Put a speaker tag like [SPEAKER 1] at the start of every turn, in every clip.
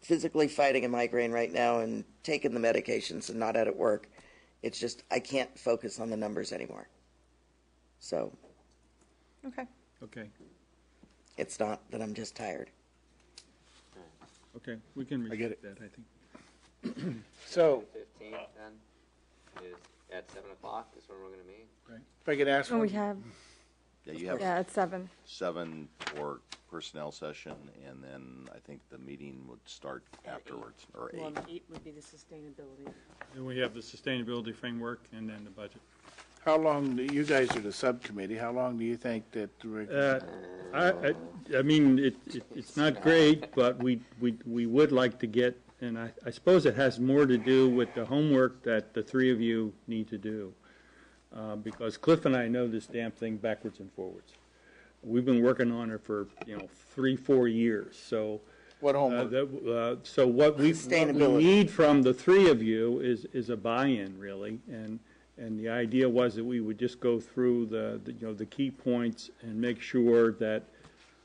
[SPEAKER 1] physically fighting a migraine right now and taking the medications and not out at work. It's just, I can't focus on the numbers anymore. So
[SPEAKER 2] Okay.
[SPEAKER 3] Okay,
[SPEAKER 1] it's not that I'm just tired.
[SPEAKER 3] okay, we can
[SPEAKER 4] I get
[SPEAKER 3] revisit
[SPEAKER 4] it.
[SPEAKER 3] that, I think.
[SPEAKER 4] So,
[SPEAKER 5] Fifteenth then, is at seven o'clock is when we're gonna meet.
[SPEAKER 4] if I could ask,
[SPEAKER 2] And Oh, we
[SPEAKER 4] one-
[SPEAKER 2] have,
[SPEAKER 6] Yeah, you have
[SPEAKER 2] yeah, it's seven.
[SPEAKER 6] seven for personnel session, and then I think the meeting would start afterwards, or
[SPEAKER 7] Well,
[SPEAKER 6] eight.
[SPEAKER 7] eight would be the sustainability.
[SPEAKER 3] And we have the sustainability framework and then the budget.
[SPEAKER 4] how long, do you guys are the subcommittee, how long do you think that
[SPEAKER 3] Uh,
[SPEAKER 4] we're,
[SPEAKER 3] I, I, I mean, it, it- it's not great, but we, we, we would like to get, and I, I suppose it has more to do with the homework that the three of you need to do. Uh, because Cliff and I know this damn thing backwards and forwards. We've been working on it for, you know, three, four years, so.
[SPEAKER 4] what
[SPEAKER 3] Uh,
[SPEAKER 4] homework?
[SPEAKER 3] that- uh, So what we, what we
[SPEAKER 1] Sustainability.
[SPEAKER 3] need from the three of you is, is a buy-in, really. And, and the idea was that we would just go through the, the, you know, the key points and make sure that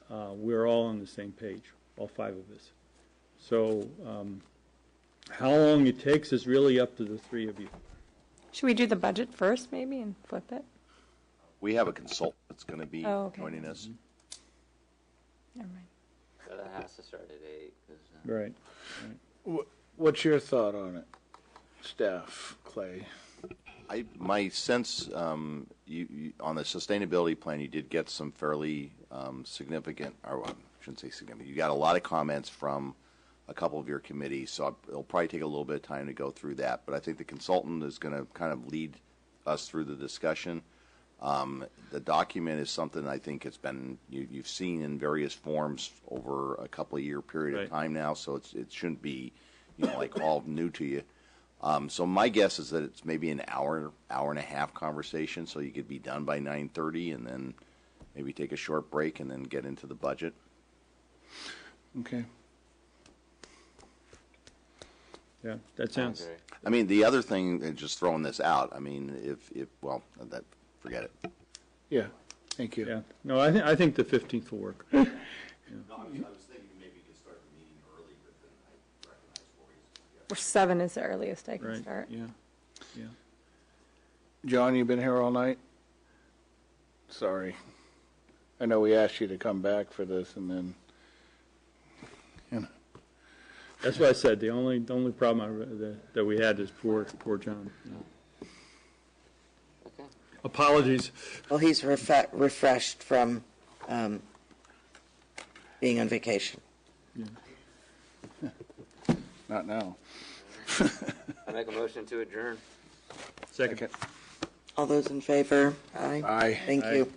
[SPEAKER 3] uh, we're all on the same page, all five of us. So um, how long it takes is really up to the three of you.
[SPEAKER 2] Should we do the budget first, maybe, and flip it?
[SPEAKER 6] We have a consultant that's gonna be
[SPEAKER 2] Oh, okay.
[SPEAKER 6] joining us.
[SPEAKER 2] Never mind.
[SPEAKER 5] So that has to start at eight, 'cause, uh,
[SPEAKER 3] Right.
[SPEAKER 4] Wh- What's your thought on it, staff, Clay?
[SPEAKER 6] I, my sense, um, you, you, on the sustainability plan, you did get some fairly, um, significant, or well, I shouldn't say significant, you got a lot of comments from a couple of your committees, so it'll probably take a little bit of time to go through that, but I think the consultant is gonna kind of lead us through the discussion. Um, the document is something I think it's been, you, you've seen in various forms over a couple of year period
[SPEAKER 3] Right.
[SPEAKER 6] of time now, so it's, it shouldn't be, you know, like all new to you. Um, so my guess is that it's maybe an hour, hour and a half conversation, so you could be done by nine thirty, and then maybe take a short break and then get into the budget.
[SPEAKER 4] Okay,
[SPEAKER 3] Yeah, that
[SPEAKER 5] I
[SPEAKER 3] sounds,
[SPEAKER 5] agree.
[SPEAKER 6] I mean, the other thing, and just throwing this out, I mean, if if well, that forget it.
[SPEAKER 4] yeah, thank you.
[SPEAKER 3] yeah. No, I think, I think the 15th will work.
[SPEAKER 6] No, I was, I was thinking maybe you could start the meeting early, but then I recognize
[SPEAKER 2] Well, Seven is the earliest I can
[SPEAKER 3] Right,
[SPEAKER 2] start.
[SPEAKER 3] yeah, yeah.
[SPEAKER 4] John, you been here all night? Sorry. I know we asked you to come back for this and then, you know,
[SPEAKER 3] That's what I said, the only, the only problem I, re- that, that we had is poor, poor John.
[SPEAKER 5] Okay.
[SPEAKER 3] Apologies.
[SPEAKER 1] Well, he's refa- refreshed from um, being on vacation.
[SPEAKER 4] not now.
[SPEAKER 5] I make a motion to adjourn.
[SPEAKER 3] Second.
[SPEAKER 1] All those in favor? Aye.
[SPEAKER 4] Aye.
[SPEAKER 1] Thank you.